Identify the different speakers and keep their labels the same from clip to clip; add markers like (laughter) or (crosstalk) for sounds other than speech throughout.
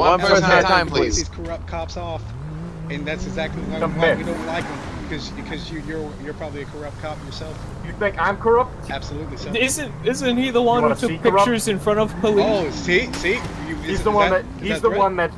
Speaker 1: One
Speaker 2: That's
Speaker 1: person
Speaker 2: how
Speaker 1: at a
Speaker 2: I
Speaker 1: time,
Speaker 2: piss
Speaker 1: please.
Speaker 2: These corrupt cops off, and that's exactly why,
Speaker 3: Come
Speaker 2: why
Speaker 3: here.
Speaker 2: we don't like them because because you, you're you're probably a corrupt cop yourself.
Speaker 3: You think I'm corrupt?
Speaker 2: Absolutely so.
Speaker 4: Isn't isn't he the one who
Speaker 3: wanna
Speaker 4: took
Speaker 3: see corrupt?
Speaker 4: pictures in front of police?
Speaker 2: Oh, see, see, you,
Speaker 3: He's
Speaker 2: is-
Speaker 3: the
Speaker 2: is
Speaker 3: one that,
Speaker 2: that- is
Speaker 3: he's
Speaker 2: that
Speaker 3: the
Speaker 2: threat?
Speaker 3: one that.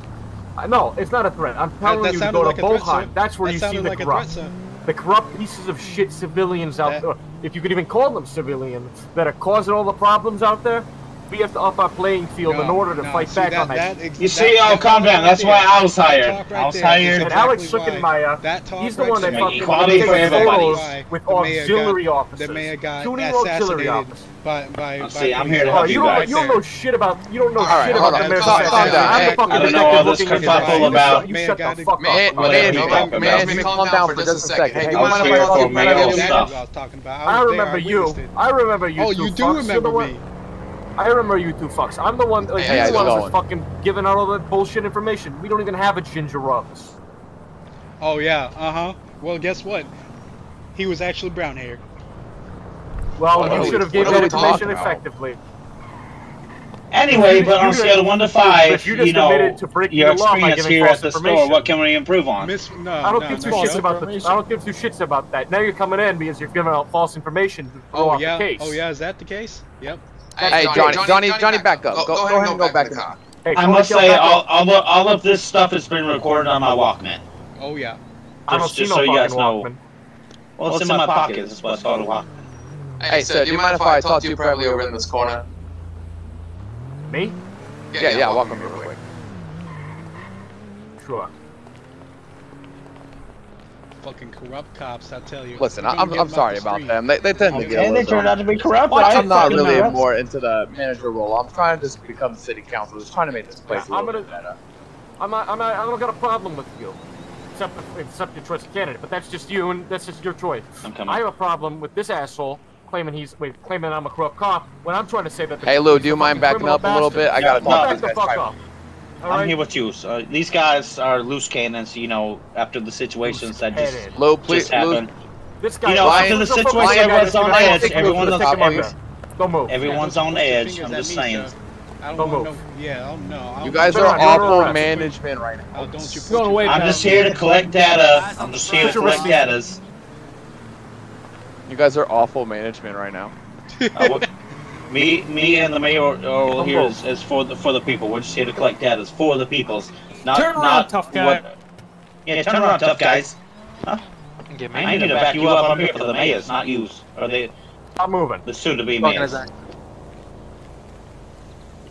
Speaker 3: Uh, no, it's not a threat. I'm
Speaker 2: That,
Speaker 3: telling
Speaker 2: that
Speaker 3: you to
Speaker 2: sounded
Speaker 3: go
Speaker 2: like
Speaker 3: to
Speaker 2: a threat, sir.
Speaker 3: Bohan. That's where
Speaker 2: That
Speaker 3: you see
Speaker 2: sounded
Speaker 3: the
Speaker 2: like a threat,
Speaker 3: corrupt,
Speaker 2: sir. Eh.
Speaker 3: the corrupt pieces of shit civilians out
Speaker 2: That-
Speaker 3: there. If you could even call them civilians that are causing all the problems out there, we have to up our playing field in
Speaker 2: No,
Speaker 3: order to
Speaker 2: no,
Speaker 3: fight
Speaker 2: see,
Speaker 3: back
Speaker 2: that-
Speaker 3: on that.
Speaker 2: that ex-
Speaker 5: You
Speaker 2: that-
Speaker 5: see,
Speaker 2: that
Speaker 5: I'll calm
Speaker 2: talk
Speaker 5: down.
Speaker 2: right
Speaker 5: That's why
Speaker 2: there-
Speaker 5: I was
Speaker 2: that
Speaker 5: hired.
Speaker 2: talk right
Speaker 5: I was
Speaker 2: there is
Speaker 5: hired.
Speaker 3: And
Speaker 2: exactly
Speaker 3: Alex
Speaker 2: why-
Speaker 3: looking my uh,
Speaker 2: That talk
Speaker 3: he's the
Speaker 2: right
Speaker 3: one that
Speaker 2: there-
Speaker 3: fucking
Speaker 5: Equality
Speaker 3: takes
Speaker 5: for everybody.
Speaker 3: photos
Speaker 2: The
Speaker 3: with
Speaker 2: mayor got-
Speaker 3: auxiliary officers,
Speaker 2: The mayor got
Speaker 3: tuning auxiliary
Speaker 2: assassinated
Speaker 3: officers.
Speaker 2: by by.
Speaker 5: Oh,
Speaker 2: by
Speaker 5: see, I'm
Speaker 2: police.
Speaker 5: here to
Speaker 3: Oh,
Speaker 5: help
Speaker 3: you
Speaker 5: you
Speaker 3: don't,
Speaker 5: guys.
Speaker 3: you don't know shit about you don't know
Speaker 1: All right,
Speaker 3: shit
Speaker 1: hold on.
Speaker 3: about the American
Speaker 1: Stop-
Speaker 3: facts.
Speaker 1: stop that.
Speaker 3: I'm the
Speaker 1: Hey,
Speaker 3: fucking
Speaker 5: I don't know
Speaker 3: detective
Speaker 5: all this
Speaker 3: looking into
Speaker 2: kerfuffle
Speaker 3: that.
Speaker 5: about-
Speaker 3: You shut the
Speaker 2: Man,
Speaker 3: fuck
Speaker 1: May,
Speaker 3: up.
Speaker 5: Well,
Speaker 1: may,
Speaker 5: let me
Speaker 1: may,
Speaker 5: talk
Speaker 1: may,
Speaker 5: about
Speaker 1: may,
Speaker 5: it.
Speaker 1: may calm down for just a second. Hey,
Speaker 5: I
Speaker 1: you
Speaker 5: was
Speaker 1: mind if
Speaker 5: here
Speaker 1: I
Speaker 5: for
Speaker 1: fucking
Speaker 5: male
Speaker 1: cut in?
Speaker 2: Exactly
Speaker 5: stuff.
Speaker 2: what I was talking about.
Speaker 3: I
Speaker 2: was there.
Speaker 3: remember you.
Speaker 2: witnessed it.
Speaker 3: I remember you.
Speaker 2: Oh,
Speaker 3: two
Speaker 2: you do
Speaker 3: fucks. You're the
Speaker 2: remember
Speaker 3: one-
Speaker 2: me.
Speaker 3: I remember you two fucks. I'm the one. Like,
Speaker 1: Hey,
Speaker 3: you're
Speaker 1: how's
Speaker 3: the one
Speaker 1: it
Speaker 3: that's fucking giving out all that bullshit information. We don't even have a ginger office.
Speaker 2: Oh yeah. Uh huh. Well, guess what? He was actually brown haired.
Speaker 3: Well,
Speaker 1: What are
Speaker 3: you
Speaker 1: we-
Speaker 3: should have gave
Speaker 1: what are
Speaker 3: that
Speaker 1: we talking
Speaker 3: information
Speaker 1: about?
Speaker 3: effectively.
Speaker 5: Anyway,
Speaker 3: You-
Speaker 5: but on
Speaker 3: you
Speaker 5: a
Speaker 3: just-
Speaker 5: scale of one to five,
Speaker 3: if you just
Speaker 5: you know
Speaker 3: admitted to breaking
Speaker 5: your
Speaker 3: the law by
Speaker 5: experience
Speaker 3: giving
Speaker 5: here
Speaker 3: false
Speaker 5: at the store.
Speaker 3: information.
Speaker 5: What can we improve on?
Speaker 2: Miss. No.
Speaker 3: I don't
Speaker 2: Oh, no,
Speaker 3: give two
Speaker 2: no,
Speaker 3: shits
Speaker 2: no.
Speaker 3: about the. I don't give two shits about that. Now you're coming in because you're giving out false information to throw
Speaker 2: Oh
Speaker 3: off
Speaker 2: yeah.
Speaker 3: the case.
Speaker 2: Oh yeah. Is that the case? Yep.
Speaker 1: Hey, Johnny, Johnny, Johnny, back up. Go, go ahead and go back in the car.
Speaker 3: Hey,
Speaker 5: I
Speaker 3: Tony,
Speaker 5: must
Speaker 3: get
Speaker 5: say, uh,
Speaker 3: back up.
Speaker 5: all, all, of, all of this stuff has been recorded on my Walkman.
Speaker 2: Oh yeah.
Speaker 3: I don't
Speaker 5: just-
Speaker 3: see
Speaker 5: just
Speaker 3: no
Speaker 5: so you guys
Speaker 3: fucking
Speaker 5: know.
Speaker 3: Walkman.
Speaker 5: Well, it's, in, my pocket. That's why it's called a Walkman.
Speaker 1: Hey, sir, do you mind if I talk to you privately over in this corner?
Speaker 3: Me?
Speaker 1: Yeah, yeah, welcome real quick.
Speaker 3: Sure.
Speaker 2: Fucking corrupt cops. I tell you.
Speaker 1: Listen,
Speaker 2: We're
Speaker 1: I-
Speaker 2: gonna
Speaker 1: I'm,
Speaker 2: get
Speaker 1: I'm
Speaker 2: them off
Speaker 1: sorry
Speaker 2: the
Speaker 1: about
Speaker 2: street.
Speaker 1: them. They, they tend to get a
Speaker 5: And they turned
Speaker 1: little.
Speaker 5: out to be corrupt, right?
Speaker 1: I'm not
Speaker 5: Fucking
Speaker 1: really
Speaker 5: nuts.
Speaker 1: more into the manager role. I'm trying to just become city council. Just trying to make this place a
Speaker 3: I'm
Speaker 1: little bit
Speaker 3: gonna-
Speaker 1: better.
Speaker 3: I'm not, I'm not, I don't got a problem with you. Except, except your choice of candidate, but that's just you and that's just your choice.
Speaker 5: I'm coming.
Speaker 3: I have a problem with this asshole claiming he's wait, claiming I'm a corrupt cop when I'm trying to say that. The
Speaker 1: Hey, Lou, do you mind backing
Speaker 3: criminal
Speaker 1: up a little bit?
Speaker 3: bastard-
Speaker 1: I gotta
Speaker 5: No,
Speaker 1: talk to
Speaker 3: back
Speaker 1: these
Speaker 3: the
Speaker 1: guys.
Speaker 3: fuck
Speaker 1: privately.
Speaker 3: up. All
Speaker 5: I'm
Speaker 3: right?
Speaker 5: here with you. So these guys are loose cannons, you know, after the situations that just,
Speaker 3: Headed.
Speaker 1: Lou, please,
Speaker 5: just
Speaker 1: Lou,
Speaker 5: happened.
Speaker 3: This guy.
Speaker 5: You know,
Speaker 3: Why-
Speaker 1: after
Speaker 5: the
Speaker 3: Don't fuck
Speaker 5: situation,
Speaker 3: with that guy
Speaker 5: everyone's
Speaker 3: that's
Speaker 5: on
Speaker 3: giving out
Speaker 5: edge,
Speaker 3: fake news
Speaker 5: everyone's
Speaker 3: to
Speaker 5: on
Speaker 3: the
Speaker 5: top,
Speaker 3: fucking
Speaker 5: every-
Speaker 3: media. Don't move.
Speaker 5: Everyone's on
Speaker 2: Put your
Speaker 5: edge.
Speaker 2: fingers
Speaker 5: I'm
Speaker 2: at
Speaker 5: just
Speaker 2: me,
Speaker 5: saying.
Speaker 2: sir. I
Speaker 3: Don't
Speaker 2: don't want
Speaker 3: move.
Speaker 2: no. Yeah. Oh no. I
Speaker 1: you
Speaker 2: don't
Speaker 1: guys
Speaker 2: want
Speaker 1: are
Speaker 3: Turn
Speaker 2: no-
Speaker 3: around, turn
Speaker 1: awful
Speaker 3: around.
Speaker 1: management right now.
Speaker 2: Oh, don't you put
Speaker 4: Go
Speaker 2: your-
Speaker 4: away,
Speaker 5: I'm just here to collect data. I'm just here to collect data.
Speaker 1: You guys are awful management right now.
Speaker 5: Uh, what- me, me, and the mayor are here is, is for the for the people. We're just here to collect data for the peoples. Not
Speaker 4: Turn around,
Speaker 5: not
Speaker 4: tough guy.
Speaker 5: What, yeah, turn around, tough guys. I need to back you up. I'm here for the mayors, not you. Or the
Speaker 3: Stop moving.
Speaker 5: the soon to be
Speaker 1: Fucking
Speaker 5: mayors.
Speaker 1: exact-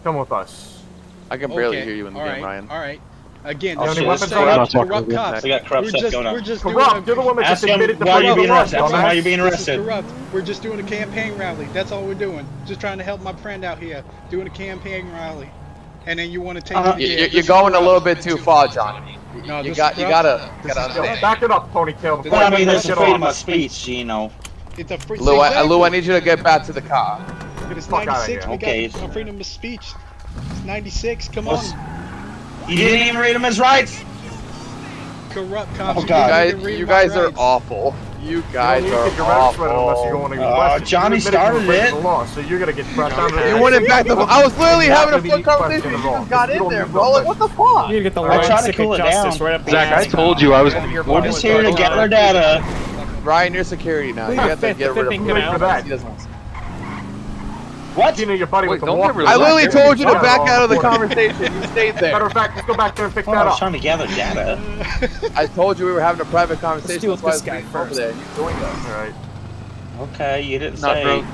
Speaker 3: Come with us.
Speaker 1: I can barely
Speaker 2: Okay,
Speaker 1: hear you in the
Speaker 2: all
Speaker 1: game,
Speaker 2: right,
Speaker 1: Ryan.
Speaker 2: All right. Again,
Speaker 3: Oh,
Speaker 2: this
Speaker 5: shit,
Speaker 2: is
Speaker 3: weapons
Speaker 2: the
Speaker 3: are
Speaker 2: same
Speaker 3: up.
Speaker 2: corrupt cops.
Speaker 5: We got corrupt
Speaker 2: we're
Speaker 5: stuff
Speaker 2: just,
Speaker 5: going on.
Speaker 2: We're just
Speaker 3: Corrupt. You're
Speaker 2: doing
Speaker 3: the one that
Speaker 5: Ask
Speaker 3: just
Speaker 5: him
Speaker 3: admitted to
Speaker 5: why you're
Speaker 3: being
Speaker 5: being arrested. Ask him why
Speaker 3: dumbass.
Speaker 5: you're being
Speaker 2: This is
Speaker 5: arrested.
Speaker 2: corrupt. We're just doing a campaign rally. That's all we're doing. Just trying to help my friend out here, doing a campaign rally. And then you want to take
Speaker 5: Uh-huh.
Speaker 2: it
Speaker 1: You-
Speaker 2: again.
Speaker 1: you- You're
Speaker 2: This is
Speaker 1: going a
Speaker 2: corrupt.
Speaker 1: little bit too far, Johnny.
Speaker 2: No,
Speaker 1: You
Speaker 2: this
Speaker 1: got,
Speaker 2: is
Speaker 1: you
Speaker 2: corrupt.
Speaker 1: gotta, gotta
Speaker 3: Yo,
Speaker 1: understand.
Speaker 3: Back it up, ponytail.
Speaker 2: This
Speaker 3: before
Speaker 2: is-
Speaker 5: Well, I
Speaker 3: you
Speaker 5: mean,
Speaker 3: get
Speaker 5: there's
Speaker 3: shit
Speaker 5: freedom
Speaker 3: on.
Speaker 5: of speech, you know.
Speaker 2: It's a free.
Speaker 1: Lou, I,
Speaker 2: exactly.
Speaker 1: Lou, I need you to get back to the car.
Speaker 2: It's
Speaker 3: fuck outta
Speaker 2: 96.
Speaker 3: here.
Speaker 2: We
Speaker 5: Okay.
Speaker 2: got our freedom of speech. It's 96. Come on,
Speaker 5: What's- You didn't even read him his rights.
Speaker 2: corrupt cops.
Speaker 5: Oh,
Speaker 1: You
Speaker 2: You
Speaker 5: God.
Speaker 2: can't
Speaker 1: guys,
Speaker 2: even read
Speaker 1: you
Speaker 2: my
Speaker 1: guys are
Speaker 2: rights. (laughs)
Speaker 1: awful. You guys
Speaker 3: you
Speaker 1: are
Speaker 3: don't need to get your rights read unless you're
Speaker 1: awful.
Speaker 3: going to
Speaker 5: Uh,
Speaker 3: get questioned.
Speaker 5: Johnny
Speaker 3: you admitted you were
Speaker 5: started
Speaker 3: breaking
Speaker 5: it.
Speaker 3: The law, so you're going to get pressed on
Speaker 1: You wouldn't back the. I was literally having a full conversation. You just got in there, bro. Like, what the fuck?
Speaker 4: You need to get the
Speaker 5: Oh, I
Speaker 4: Ryan
Speaker 5: tried to
Speaker 4: Sick
Speaker 5: cool
Speaker 4: of
Speaker 5: it
Speaker 4: Justice
Speaker 5: down.
Speaker 4: right up the
Speaker 6: Zach, I
Speaker 4: ass.
Speaker 6: told you I was going to be
Speaker 3: We're
Speaker 5: We're
Speaker 6: recording.
Speaker 5: just here to gather data.
Speaker 1: Ryan, your security now. You
Speaker 4: Leave
Speaker 1: have to
Speaker 4: the fifth-
Speaker 1: get
Speaker 4: the
Speaker 1: rid of
Speaker 4: fifth
Speaker 1: him.
Speaker 4: thing
Speaker 3: out.
Speaker 1: He doesn't want to-
Speaker 5: What?
Speaker 3: You know, your buddy
Speaker 6: Wait,
Speaker 3: with the
Speaker 6: don't
Speaker 3: walk-
Speaker 6: get rid of
Speaker 1: I literally
Speaker 3: Jeremy
Speaker 1: told you to
Speaker 3: Potter
Speaker 1: back
Speaker 3: on
Speaker 1: out of the
Speaker 3: corner.
Speaker 5: (laughs)
Speaker 1: conversation. You stayed
Speaker 3: Matter
Speaker 1: there.
Speaker 3: of fact, let's go back there and pick
Speaker 5: Well,
Speaker 3: that
Speaker 5: Oh, I was
Speaker 3: up.
Speaker 5: trying to gather data.
Speaker 1: I told you we were having a private conversation.
Speaker 4: deal with
Speaker 1: That's why I
Speaker 4: this
Speaker 1: was leaning
Speaker 4: guy
Speaker 1: over
Speaker 4: first.
Speaker 1: there. You're doing that.
Speaker 3: All right.
Speaker 5: Okay, you didn't
Speaker 6: Not
Speaker 5: say.
Speaker 6: broke.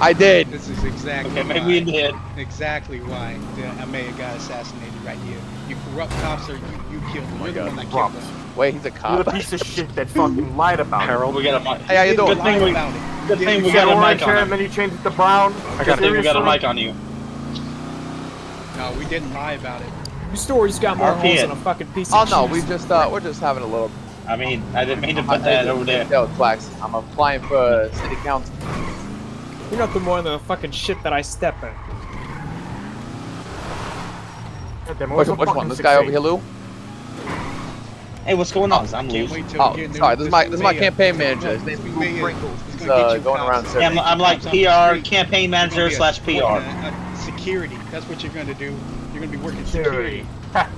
Speaker 1: I did.
Speaker 2: This is exactly.
Speaker 5: Okay,
Speaker 2: why.
Speaker 5: maybe you did.
Speaker 2: exactly why uh, the mayor got assassinated right here. You corrupt cops are you, you killed
Speaker 5: Oh
Speaker 2: them. You're the one that killed
Speaker 3: Corrupt.
Speaker 2: them.
Speaker 1: Wait, he's a
Speaker 3: You're
Speaker 1: cop.
Speaker 3: the piece of shit that fucking lied about it.
Speaker 5: We got a mic.
Speaker 1: Hey, how you
Speaker 2: Didn't
Speaker 1: doing?
Speaker 5: Good thing
Speaker 2: lie
Speaker 5: we-
Speaker 2: about it.
Speaker 5: good
Speaker 2: Didn't
Speaker 5: thing we
Speaker 3: You
Speaker 2: say-
Speaker 3: said
Speaker 5: got a mic
Speaker 3: orange
Speaker 5: on
Speaker 3: hair
Speaker 5: it.
Speaker 3: and then you changed it to brown.
Speaker 5: I got, we got a
Speaker 3: Seriously?
Speaker 5: mic on you.
Speaker 2: No, we didn't lie about it.
Speaker 4: Your story's got more
Speaker 5: RP
Speaker 4: holes
Speaker 5: it.
Speaker 4: than a fucking
Speaker 1: (laughs)
Speaker 4: piece
Speaker 1: Oh
Speaker 4: of
Speaker 1: no, we
Speaker 4: cheese.
Speaker 1: just uh, we're just having a little.
Speaker 5: I mean, I didn't mean to put that over there.
Speaker 1: Yo, Flax, I'm applying for city council.
Speaker 4: You're nothing more than the fucking shit that I step in.
Speaker 3: Goddamn, it
Speaker 1: Which,
Speaker 3: was a
Speaker 1: which one?
Speaker 3: fucking
Speaker 1: This guy over here,
Speaker 3: succeed.
Speaker 1: Lou?
Speaker 5: Hey, what's going on? I'm
Speaker 2: Can't
Speaker 5: loose.
Speaker 2: wait till
Speaker 1: Oh,
Speaker 2: we get
Speaker 1: sorry. This is my
Speaker 2: new
Speaker 1: this is my
Speaker 2: mayor.
Speaker 1: campaign manager. His
Speaker 2: Look,
Speaker 1: name's
Speaker 2: this
Speaker 1: Lou
Speaker 2: mayor
Speaker 1: Pringles.
Speaker 2: is
Speaker 1: He's
Speaker 2: gonna get
Speaker 1: uh,
Speaker 2: you
Speaker 1: going
Speaker 2: cops
Speaker 1: around
Speaker 2: on
Speaker 1: serving.
Speaker 5: I'm, I'm like PR campaign manager
Speaker 2: You're gonna
Speaker 5: slash
Speaker 2: be a-
Speaker 5: PR.
Speaker 2: uh, uh, security. That's what you're going to do. You're going to be working security.
Speaker 3: Security.